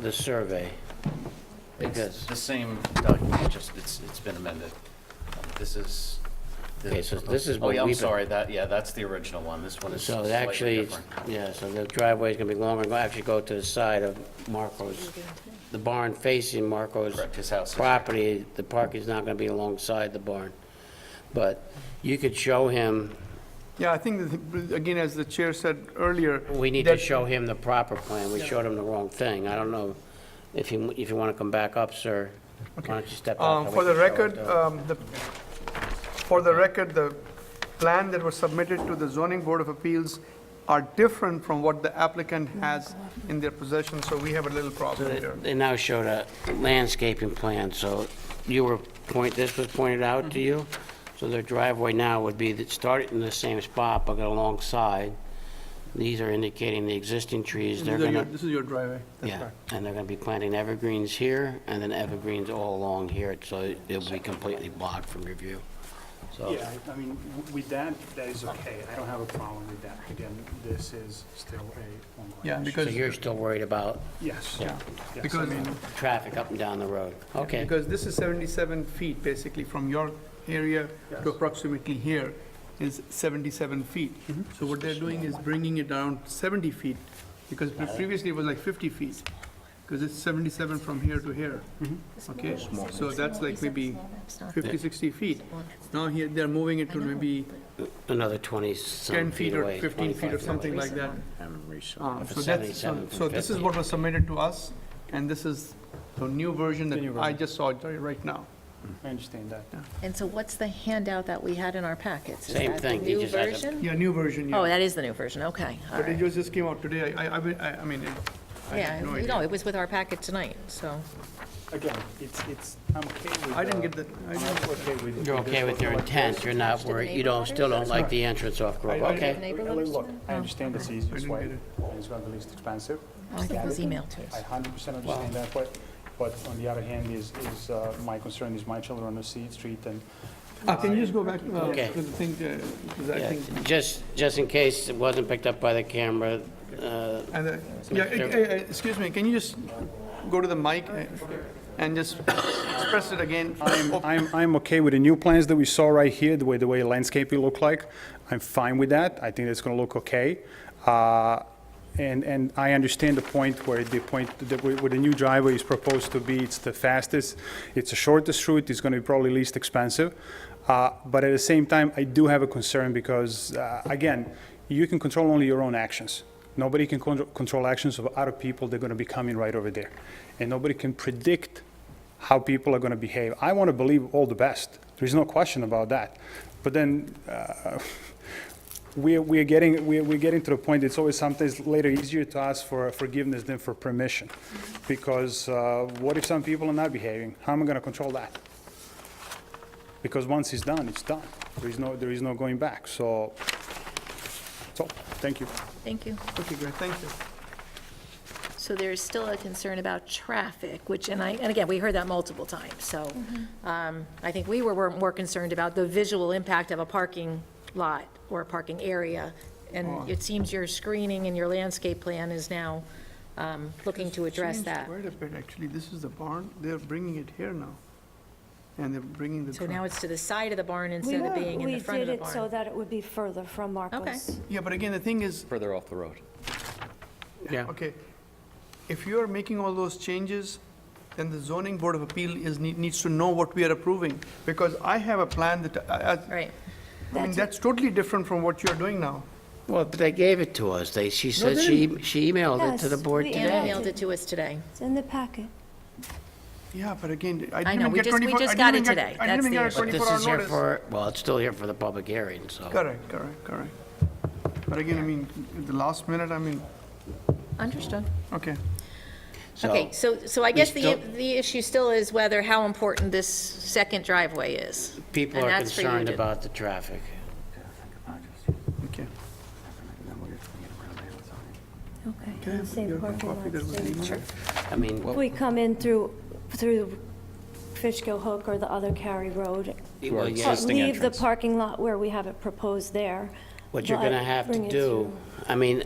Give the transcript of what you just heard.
the survey. It's Because- the same document, just, it's, it's been amended. This is. the- Okay, so this is Oh, what yeah, I'm we've been- sorry, that, yeah, that's the original one, this one is So slightly actually, it's- different. yeah, so the driveway's gonna be longer, gonna actually go to the side of Marco's, the barn facing Marco's Correct, his house is- property, the parking's not gonna be alongside the barn. But you could show him, Yeah, I think, that, again, as the chair said earlier. we need to that- um, show him the proper plan, we showed him the wrong thing, I don't know if you, if you wanna come back up, sir, why don't you step out? Um, For the record, um, the, for the record, the plan that was submitted to the zoning board of appeals are different from what the applicant has in their possession, so we have a little problem here. They now showed a landscaping plan, so you were point, this was pointed out to you? Mm-hmm. So their driveway now would be, that started in the same spot, but alongside. These are indicating the existing trees, they're gonna, This is your driveway. yeah, and they're gonna be planting evergreens here, and then evergreens all along here, so it'll be completely blocked from your view. So, Yeah, I I mean, w- with that, that is okay. I don't have a problem with that. Again, this is still a home Yeah, occupation. so because, you're still worried about Yes. Yeah. Yes, I because, mean, traffic up and down the road? Okay, because this is 77 feet, basically, from your area Yes. to approximately here is 77 feet. Mm-hmm. So what they're doing is bringing it down 70 feet, because pre- previously it was like 50 feet, because it's 77 from here to here. Mm-hmm. Okay, so that's like maybe 50, 60 feet. Now here, they're moving it to maybe another 20 10 some feet feet or away. 15 feet or 25 something like that. Um, For So that's, so 77 so this is what was submitted to us, and this is the new version The new that I version. just saw right now. I understand that. And so what's the handout that we had in our packets? Is Same that thing, the he new just has a- version? Yeah, new version, yeah. Oh, that is the new version, okay, all But it right. just, just came out today, I, I, I I mean, it- I Yeah, had no no, idea. it was with our packet tonight, so, Again, it's, it's, I'm okay with. I didn't uh, get the, I'm I didn't- also okay with. You're with this okay with your one. intent, you're not Attached to the worried, you don't, still don't like the entrance off Grove, I- I- okay? Neighbor Look, lives Look, there? I Oh, understand that's the I easiest didn't way, get it. and it's going to be least expensive. I think it was get it. emailed to I us. hundred percent understand that, but, but on the other hand, is, is, uh, my concern is my children on the street and Uh, can you just go back uh, Okay. to the thing, uh, because I Yeah, think, Just, just in case it wasn't picked up by the camera, uh, and, uh, yeah, eh, eh, eh, excuse me, can you just go to the mic eh, and just express it again? I'm, I'm, I'm okay with the new plans that we saw right here, the way, the way landscaping look like. I'm fine with that. I think it's gonna look okay. Uh, And, and I understand the point where the point, that where where the new driveway is proposed to be, it's the fastest, it's the shortest route, it's gonna be probably least expensive. Uh, But at the same time, I do have a concern because, uh, again, you can control only your own actions. Nobody can control, control actions of other people that are gonna be coming right over there. And nobody can predict how people are going to behave. I want to believe all the best. There's no question about that. But then uh, we're, we're, getting, we're, we're getting to the point it's always sometimes later easier to ask for forgiveness than for permission. Because uh, what if some people are not behaving? How am I going to control that? Because once it's done, it's done. There is no, there is no going back. So, so thank you. thank you. Okay, great, thank you. So there is still a concern about traffic, which, and I, and again, we heard that multiple times, so um, I think we were were more concerned about the visual impact of a parking lot or a parking area, and it seems your screening and your landscape plan is now um, looking to address Changed that. Quite a bit, actually, this is the barn, they're bringing it here now, and they're bringing the. So dri- now it's to the side of the barn instead of being in the front of the We did it so barn. that it would be further from Marcos. Yeah, but again, the thing is, further off the road. yeah, Okay, if you are making all those changes, then the zoning board of appeal is, need- needs to know what we are approving, because I have a plan that, I- I- Right. I mean, That's- that's totally different from what you're doing now. well, but they gave it to us, they, she said she, she emailed it to the Yes, board we today. Anna mailed it to us today. It's in the packet. Yeah, but again, I didn't know, even we get just- we 24 I just didn't got it even get- today. I That's didn't even the get a issue. But this 24-hour is here notice. for, well, it's still here for the public hearing, so. Correct, correct, correct. But again, I mean, at the last minute, I mean, Understood. okay. so- Okay, so, so I guess the, still- the issue still is whether, how important this second driveway is. People And are that's for you concerned to- about the traffic. Okay. Okay. Can I have Let's say your parking copy that lots was there. emailed? I mean, If we come in through, through Fishkill Hook or the other Cary Road, well, yeah. but leave the parking lot where we have it proposed there. what you're but gonna have bring to it do, through. I mean,